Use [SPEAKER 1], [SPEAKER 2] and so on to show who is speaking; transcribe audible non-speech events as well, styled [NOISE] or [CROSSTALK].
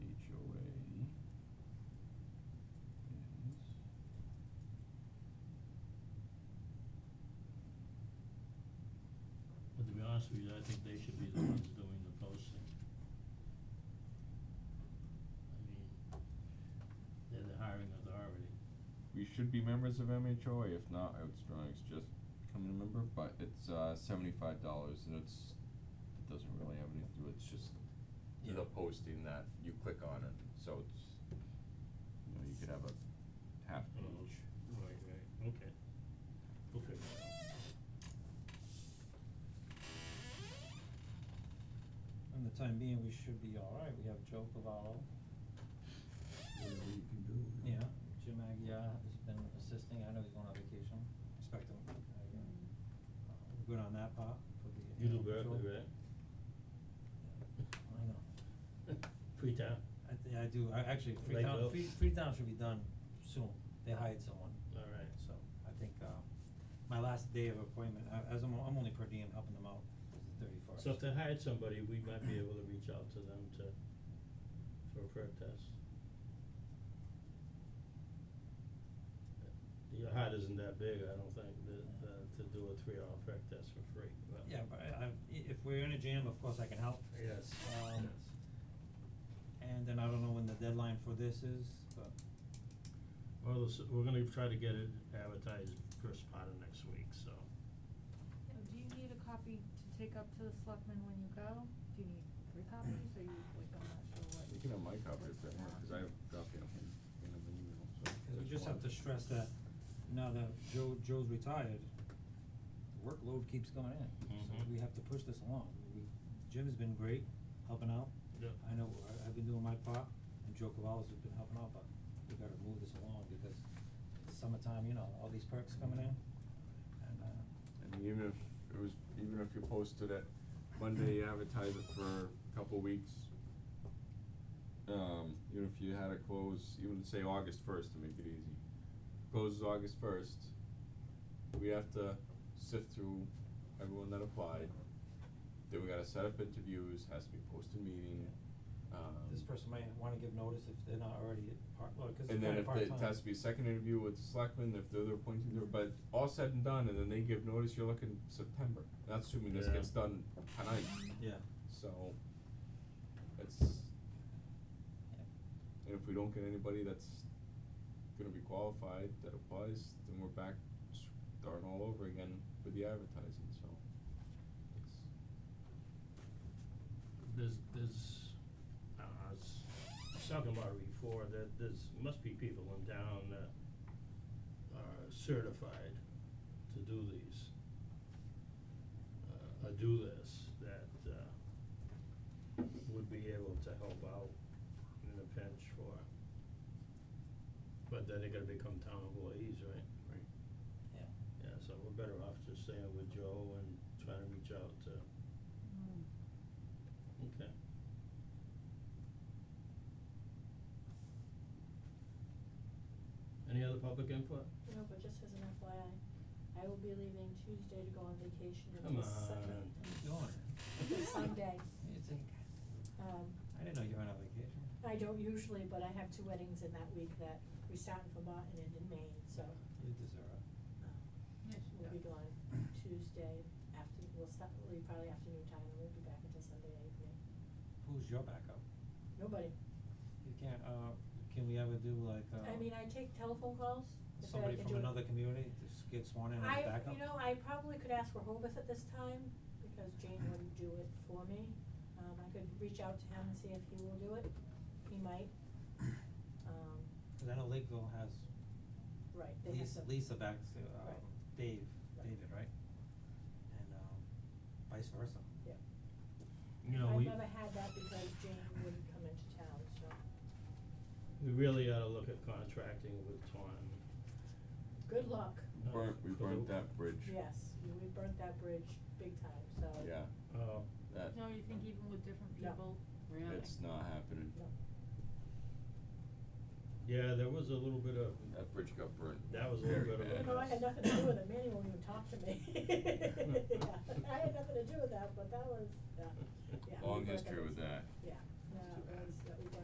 [SPEAKER 1] honest with you, I think they should be the ones doing the posting. I mean, they're the hiring authority.
[SPEAKER 2] We should be members of MHOA, if not, I would strongly suggest becoming a member, but it's uh seventy-five dollars and it's, it doesn't really have anything to do, it's just the posting that you click on it, so it's, you know, you could have a half page.
[SPEAKER 1] Uh-huh. Right, right, okay. We'll figure it out.
[SPEAKER 3] In the time being, we should be alright, we have Joe Cavallo,
[SPEAKER 4] whatever you can do. you
[SPEAKER 2] Mm-hmm.
[SPEAKER 3] yeah,
[SPEAKER 4] know.
[SPEAKER 3] Jim Agia has been assisting, I know he's going on vacation, expect him, uh, yeah. Uh, we're good on that part for the
[SPEAKER 1] You do
[SPEAKER 3] animal control.
[SPEAKER 1] Berkeley, right?
[SPEAKER 3] Yeah, I know,
[SPEAKER 1] [LAUGHS] Freetown?
[SPEAKER 3] I thi- I do, I actually,
[SPEAKER 1] Lake
[SPEAKER 3] Freetown,
[SPEAKER 1] Oaks.
[SPEAKER 3] Free, Freetown should be done soon, they hired someone.
[SPEAKER 1] All right.
[SPEAKER 3] So, I think, uh, my last day of appointment, I, as I'm, I'm only per diem helping them out, is the thirty first.
[SPEAKER 1] So if they hired somebody, we might be able to reach out to them to, for a perk test. Your heart isn't that big, I don't think, that, uh, to do a three-hour perk test for free, but.
[SPEAKER 3] Yeah, but I, I, i- if we're in a jam, of course I can help.
[SPEAKER 1] Yes,
[SPEAKER 3] Um,
[SPEAKER 1] yes.
[SPEAKER 3] And then I don't know when the deadline for this is, but
[SPEAKER 1] Well, this, we're gonna try to get it advertised first part of next week, so.
[SPEAKER 5] Now, do you need a copy to take up to the selectmen when you go? Do you need three copies, or you, like, I'm not sure what.
[SPEAKER 2] You can have my copy if that,
[SPEAKER 5] Yeah.
[SPEAKER 2] cause I have a copy of him, in the email, so.
[SPEAKER 3] Cause we
[SPEAKER 2] there's
[SPEAKER 3] just have
[SPEAKER 2] one.
[SPEAKER 3] to stress that now that Joe, Joe's retired, the workload keeps going in, so
[SPEAKER 2] Mm-hmm.
[SPEAKER 1] Mhm.
[SPEAKER 3] we have to push this along. We, Jim's been great, helping out.
[SPEAKER 1] Yep.
[SPEAKER 3] I know, I, I've been doing my part, and Joe Cavallo's has been helping out, but we gotta move this along because it's summertime, you know, all these perks coming in, and, uh,
[SPEAKER 2] And even if it was, even if you posted it Monday, advertise it for a couple weeks. Um, even if you had it close, even say August first to make it easy, closes August first. We have to sift through everyone that applied, then we gotta set up interviews, has to be posted meeting, um.
[SPEAKER 3] this person might wanna give notice if they're not already at part, well, cause it's
[SPEAKER 2] And then
[SPEAKER 3] kinda
[SPEAKER 2] if
[SPEAKER 3] part-time.
[SPEAKER 2] the, it has to be a second interview with the selectmen, if they're, they're appointing their, but all said and done, and then they give notice, you're looking September. That's assuming this
[SPEAKER 1] Yeah.
[SPEAKER 2] gets done tonight,
[SPEAKER 3] Yeah,
[SPEAKER 2] so it's,
[SPEAKER 3] yeah.
[SPEAKER 2] and if we don't get anybody that's gonna be qualified that applies, then we're back starting all over again with the advertising, so. it's-
[SPEAKER 1] There's, there's, uh, I don't know, I was I was talking about it before, E that there's, must be people in town that are certified to do these. Uh, or do this, that, uh, would be able to help out in a pinch for, but then they're gonna become town employees, right?
[SPEAKER 2] Right.
[SPEAKER 3] Yeah.
[SPEAKER 1] Yeah, so we're better off just staying with Joe and trying to reach out to,
[SPEAKER 5] Mm.
[SPEAKER 1] okay. Any other public input?
[SPEAKER 6] No, but just as an FYI, I will be leaving Tuesday to go on vacation
[SPEAKER 1] Come
[SPEAKER 6] until
[SPEAKER 1] on.
[SPEAKER 6] Sunday.
[SPEAKER 5] on.
[SPEAKER 6] Sunday.
[SPEAKER 3] It's in-
[SPEAKER 6] Um,
[SPEAKER 3] I didn't know you were on a vacation.
[SPEAKER 6] I don't usually, but I have two weddings in that week that we start in Vermont and end in Maine, so
[SPEAKER 3] You deserve it.
[SPEAKER 6] um,
[SPEAKER 5] Yes, you
[SPEAKER 6] we'll
[SPEAKER 5] do.
[SPEAKER 6] be gone Tuesday after, we'll start, we'll leave probably afternoon time and we'll be back until Sunday evening.
[SPEAKER 3] Who's your backup?
[SPEAKER 6] Nobody.
[SPEAKER 3] You can't, uh, can we ever do like, uh,
[SPEAKER 6] I mean, I take telephone calls. if I
[SPEAKER 3] somebody
[SPEAKER 6] can
[SPEAKER 3] from
[SPEAKER 6] do it.
[SPEAKER 3] another community to s- get sworn in as
[SPEAKER 6] I,
[SPEAKER 3] backup?
[SPEAKER 6] you know, I probably could ask Rehoboth at this time, because Jane wouldn't do it for me. Um, I could reach out to him and see if he will do it, he might. Um,
[SPEAKER 3] Cause I know Lakeville has
[SPEAKER 6] right, they have
[SPEAKER 3] Lisa,
[SPEAKER 6] to.
[SPEAKER 3] Lisa backs, uh,
[SPEAKER 6] Right.
[SPEAKER 3] Dave,
[SPEAKER 6] Right.
[SPEAKER 3] David, right? And, um, vice versa.
[SPEAKER 6] Yeah.
[SPEAKER 1] You know, we,
[SPEAKER 6] I've never had that because Jane wouldn't come into town, so,
[SPEAKER 1] we really ought to look at contracting with Taunton.
[SPEAKER 6] good luck.
[SPEAKER 1] Uh,
[SPEAKER 2] Burnt, we
[SPEAKER 1] for the-
[SPEAKER 2] burnt that bridge.
[SPEAKER 6] Yes, you- we burnt that bridge big time, so.
[SPEAKER 2] Yeah,
[SPEAKER 1] Oh,
[SPEAKER 2] that,
[SPEAKER 5] No, you think even with different
[SPEAKER 6] No.
[SPEAKER 5] people, really?
[SPEAKER 2] it's not happening.
[SPEAKER 6] No,
[SPEAKER 1] yeah, there was a little bit of,
[SPEAKER 2] That bridge got burnt.
[SPEAKER 1] That was a little
[SPEAKER 2] very
[SPEAKER 1] bit of a
[SPEAKER 2] bad.
[SPEAKER 6] no, I had nothing to do with it, Manny won't even talk to me. Yeah, I had nothing to do with that, but that was, yeah, yeah. we
[SPEAKER 2] Long
[SPEAKER 6] burnt
[SPEAKER 2] history with
[SPEAKER 6] bridge.
[SPEAKER 2] that.